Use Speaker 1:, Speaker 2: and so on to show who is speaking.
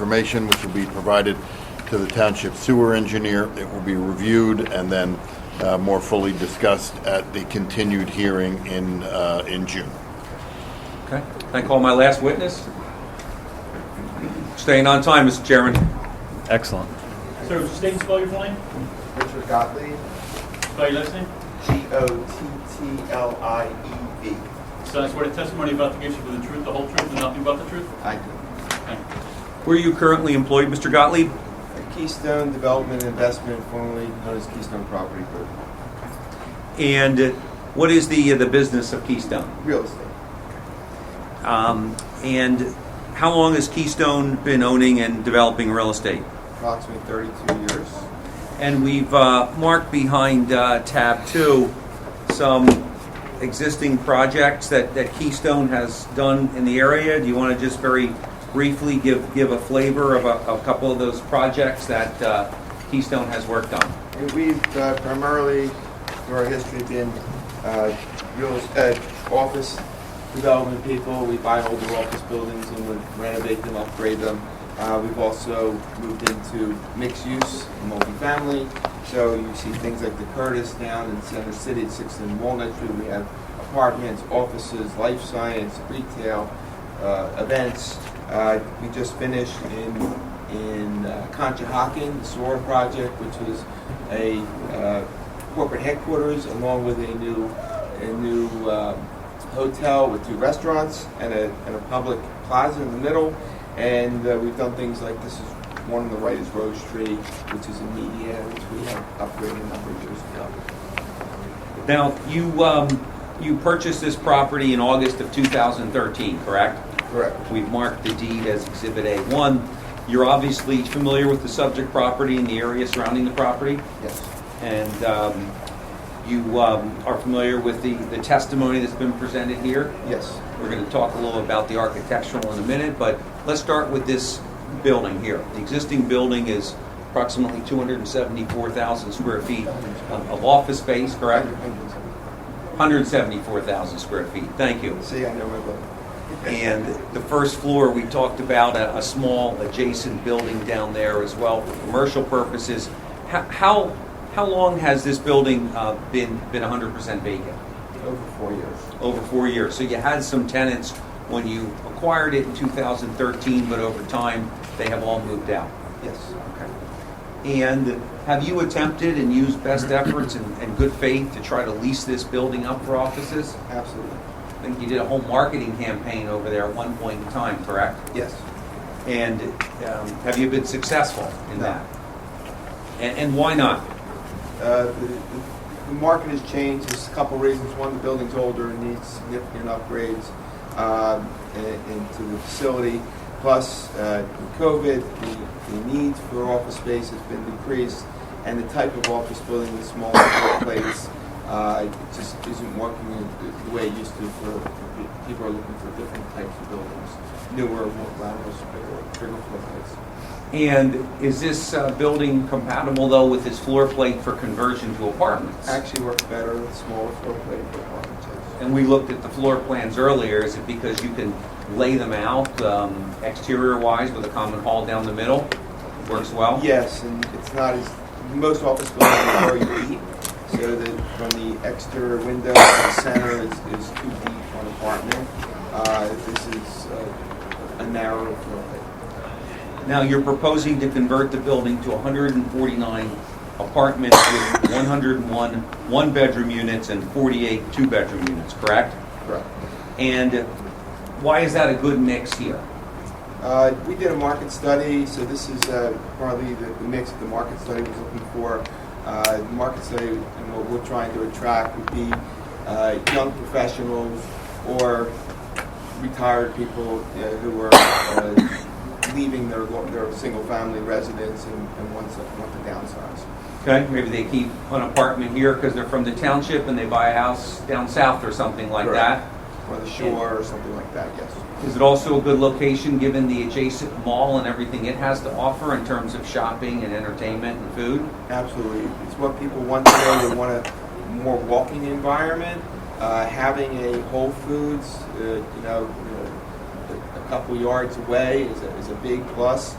Speaker 1: information, which will be provided to the township sewer engineer. It will be reviewed and then uh, more fully discussed at the continued hearing in, uh, in June.
Speaker 2: Okay, can I call my last witness? Staying on time, Mr. Chairman.
Speaker 3: Excellent.
Speaker 4: Sir, state and spell your full name,
Speaker 5: Richard Gottlieb,
Speaker 4: spell your last name.
Speaker 5: G-O-T-T-L-I-E-B.
Speaker 4: So I swear the testimony you're about to give should be the truth, the whole truth, and nothing but the truth.
Speaker 5: I do.
Speaker 4: Thank you.
Speaker 2: Where are you currently employed, Mr. Gottlieb?
Speaker 5: Keystone Development Investment, formerly known as Keystone Property Group.
Speaker 2: And uh, what is the, the business of Keystone?
Speaker 5: Real estate.
Speaker 2: Um, And how long has Keystone been owning and developing real estate?
Speaker 5: Approximately 32 years.
Speaker 2: And we've uh, marked behind uh, tab two some existing projects that, that Keystone has done in the area. Do you want to just very briefly give, give a flavor of a, a couple of those projects that uh, Keystone has worked on?
Speaker 5: And we've uh, primarily, through our history, been uh, real, uh, office development people. We buy older office buildings and we renovate them, upgrade them. Uh, We've also moved into mixed use, multifamily. So you see things like the Curtis down in Center City, Sixth and Walnut Street. We have apartments, offices, life science, retail, uh, events. Uh, We just finished in in uh, Conshohocken, the SOAR project, which was a uh, corporate headquarters along with a new, a new uh, hotel with two restaurants and a, and a public plaza in the middle. And uh, we've done things like this is one on the right is Rose Tree, which is a media, which we have upgraded a number of years ago.
Speaker 2: Now, you, um, you purchased this property in August of 2013, correct?
Speaker 5: Correct.
Speaker 2: We've marked the deed as Exhibit A1. You're obviously familiar with the subject property and the area surrounding the property?
Speaker 5: Yes.
Speaker 2: And um, you um, are familiar with the the testimony that's been presented here?
Speaker 5: Yes.
Speaker 2: We're going to talk a little about the architectural in a minute, but let's start with this building here. The existing building is approximately 274,000 square feet of of office space, correct? 174,000 square feet, thank you.
Speaker 5: See, I know my book.
Speaker 2: And the first floor, we talked about a, a small adjacent building down there as well for commercial purposes. How, how, how long has this building uh, been, been 100% vacant?
Speaker 5: Over four years.
Speaker 2: Over four years. So you had some tenants when you acquired it in 2013, but over time, they have all moved out.
Speaker 5: Yes.
Speaker 2: And have you attempted and used best efforts and, and good faith to try to lease this building up for offices?
Speaker 5: Absolutely.
Speaker 2: I think you did a whole marketing campaign over there at one point in time, correct?
Speaker 5: Yes.
Speaker 2: And um, have you been successful in
Speaker 5: No.
Speaker 2: that? And, and why not?
Speaker 5: Uh, The the- the market has changed, there's a couple reasons. One, the building's older and needs significant upgrades um, i- into the facility. Plus, uh, with COVID, the- the need for office space has been decreased, and the type of office building, the small place, uh, it just isn't working in the way it used to for, for pe- people are looking for different types of buildings, newer, more glamorous, bigger, bigger floor plates.
Speaker 2: And is this uh, building compatible though with this floor plate for conversion to apartments?
Speaker 5: Actually works better with smaller floor plate for apartment space.
Speaker 2: And we looked at the floor plans earlier. Is it because you can lay them out um, exterior wise with a common hall down the middle? Works well?
Speaker 5: Yes, and it's not as, most office buildings are very deep, so that from the exterior window to the center is, is too deep for an apartment. Uh, this is uh, a narrow floor plate.
Speaker 2: Now, you're proposing to convert the building to 149 apartments with 101 one-bedroom units and 48 two-bedroom units, correct?
Speaker 5: Correct.
Speaker 2: And why is that a good mix here?
Speaker 5: Uh, we did a market study, so this is uh, partly the, the mix that the market study was looking for. Uh, the market study and what we're trying to attract would be uh, young professionals or retired people uh, who are uh, leaving their lo- their single family residence and, and want, to, want to downsize.
Speaker 2: Okay, maybe they keep an apartment here because they're from the township and they buy a house down south or something like
Speaker 5: Correct.
Speaker 2: that.
Speaker 5: Or the shore or something like that, yes.
Speaker 2: Is it also a good location given the adjacent mall and everything it has to offer in terms of shopping and entertainment and food?
Speaker 5: Absolutely. It's what people want today. They want a more walking environment. Uh, having a Whole Foods, uh, you know, uh, a couple yards away is a, is a big plus.